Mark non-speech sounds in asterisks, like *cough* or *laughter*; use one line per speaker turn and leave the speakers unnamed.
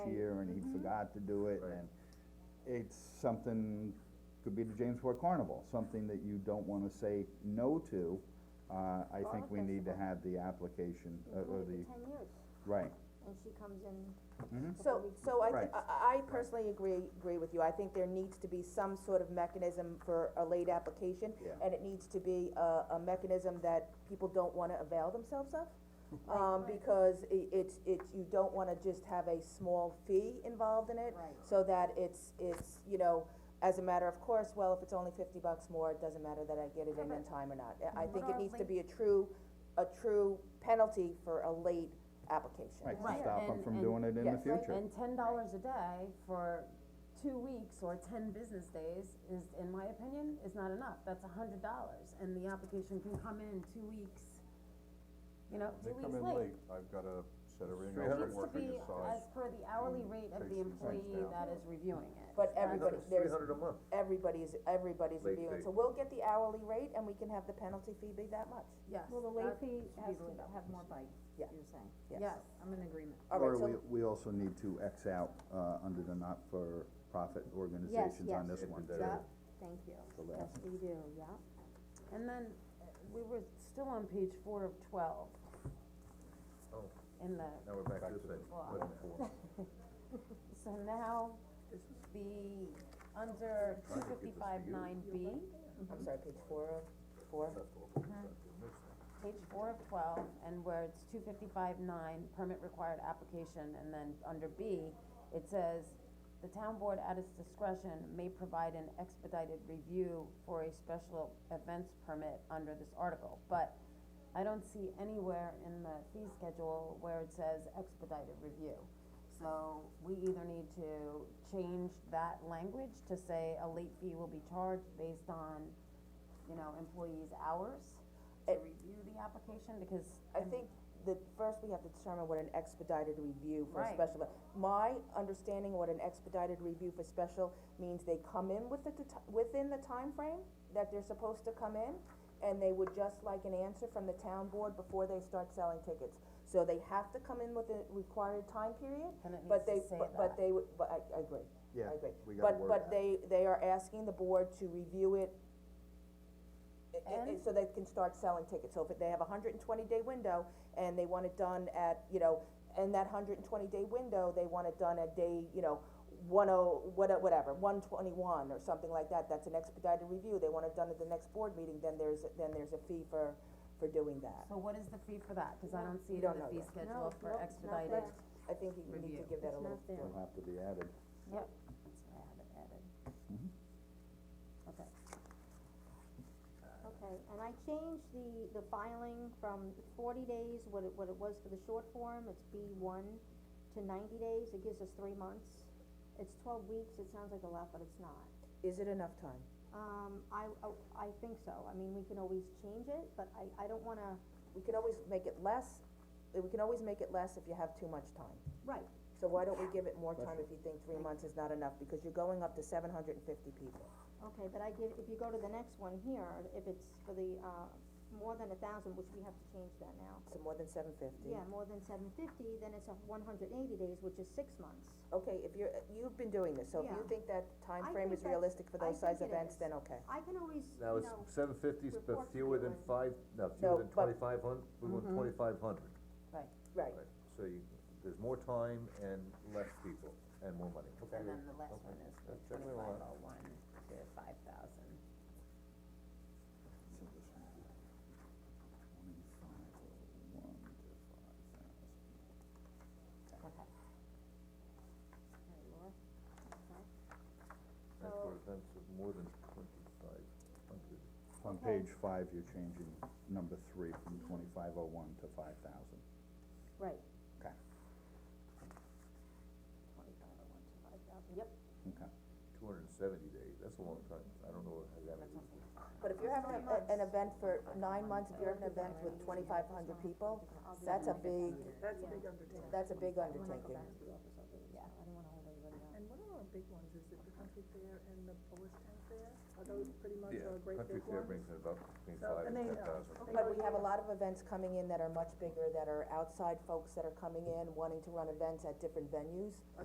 not to do it,
Right.
and it's something, could be the James Ford Carnival, something that you don't wanna say no to. Uh, I think we need to have the application, uh, or the,
ten years,
right, Mm-hmm.
and she comes in.
So, so I, thi-
Right.
I, I personally agree, agree with you, I think there needs to be some sort of mechanism for a late application.
Yeah.
And it needs to be a, a mechanism that people don't wanna avail themselves of. Um, because i- it's, it's, you don't wanna just have a small fee involved in it.
Right.
So that it's, it's, you know, as a matter of course, well, if it's only fifty bucks more, it doesn't matter that I get it in in time or not. I- I think it needs to be a true, a true penalty for a late application.
right,
Right,
to stop them
and-
from
and-
doing it in the
yes,
future.
And ten dollars a day for two weeks or ten business days is, in my opinion, is not enough, that's a hundred dollars, and the application can come in two weeks, you know,
They
two
come
weeks
in
late.
late, I've got a set a ring,
Straight
I've
up.
been
Needs to
working
be
aside.
as per the hourly
and
rate of
Mm-hmm. takes
the
these things
employee
down.
that is reviewing it.
But
That's-
everybody-
Another
there's-
$300 a month.
everybody's, everybody's
Late
reviewing,
fee.
so we'll get the hourly rate and we can have the penalty fee be that much.
Yes.
Well, the late
that
fee
should be
has
the
to
way
have more bite,
Yeah.
you're saying.
Yes,
I'm in agreement.
Alright,
Or
so,
we, we also need to X out, uh, under the not-for-profit organizations on
yes.
this one,
Yeah.
too.
Yeah, thank you.
The
Yes,
last.
we do, yeah.
and then, uh, we were still on page four of twelve.
Oh.
In the,
Now we're back to the thing.
Well,
Wait a minute.
*laughs*
so now, the, under two fifty-five nine B,
I'm sorry, page four of, four,
page four of twelve, and where it's two fifty-five nine, permit required application, and then under B, it says, the town board at its discretion may provide an expedited review for a special events permit under this article, but I don't see anywhere in the fee schedule where it says expedited review. So we either need to change that language to say a late fee will be charged based on, you know, employees' hours to
It-
review the application, because.
I think that first we have to determine what an expedited review for a
Right.
special, my understanding what an expedited review for special means they come in with the, t- within the timeframe that they're supposed to come in, and they would just like an answer from the town board before they start selling tickets. So they have to come in with a required time period,
And it
but they,
needs to say
but, but
that.
they, would- but I, I agree,
Yeah,
I agree.
we gotta work
But, but they, they are asking the board to review it, i- i-
And-
so they can start selling tickets, so if they have a hundred and twenty day window, and they want it done at, you know, in that hundred and twenty day window, they want it done at day, you know, one oh, what, whatever, one twenty-one or something like that, that's an expedited review, they want it done at the next board meeting, then there's, then there's a fee for, for doing that.
So what is the fee for that, cause I don't see
You
it in
don't
the
know
fee
yet.
No,
schedule for
nope, it's not
expedited.
there.
I think you need to
Review.
give that a
It's
little.
not there.
It'll have to be added.
Yep. That's what I had it added.
Mm-hmm.
Okay,
Okay, and I changed the, the filing from forty days, what it, what it was for the short form, it's B one, to ninety days, it gives us three months. It's twelve weeks, it sounds like a lot, but it's not.
Is it enough time?
Um, I, I, I think so, I mean, we can always change it, but I, I don't wanna,
We can always make it less, we can always make it less if you have too much time.
right,
So why don't we give it more time if you think three months is not enough, because you're going up to seven hundred and fifty people.
Okay, but I give, if you go to the next one here, if it's for the, uh, more than a thousand, which we have to change that now.
So more than seven fifty.
Yeah, more than seven fifty, then it's a one hundred eighty days, which is six months.
Okay, if you're, you've been doing this, so if you
Yeah.
think that time
I
frame
think
is
that's-
realistic for
I
those size
think it
events,
is.
then okay.
I can always, you
Now, it's
know,
seven fifties, but
reports
fewer
to
than
you
five, no,
No,
fewer than
but- Mm-hmm.
twenty-five hundred. we want twenty-five hundred.
right,
Right,
Right, so you, there's more time and less people and more money.
and
Okay.
then the last one is the
That's
twenty-five
generally a lot.
oh one to five thousand.
So this one, twenty-five oh one to five thousand.
Okay.
That's
So-
what it is, it's more than twenty-five hundred.
On page five, you're changing number three from twenty-five oh one to five thousand.
right,
Okay,
twenty-five oh one to five thousand.
Yep,
okay.
Two hundred and seventy days, that's a long time, I don't know how that is.
but if you're having a, a- an event for nine months, if you're having an event with twenty-five hundred people, that's a big,
That's a big undertaking.
that's a big
When I go
undertaking.
back to the office, I'll do it, so I don't wanna hold everybody up.
And what are our big ones, is it the country fair and the Polish town fair? Are those pretty much
Mm-hmm. Yeah,
our great
country
big
fair
ones?
brings in about between
So,
five
and
and
they uh,
ten
know.
thousand.
Okay.
But we have a lot of events coming in that are much bigger, that are outside folks that are coming in, wanting to run events at different venues.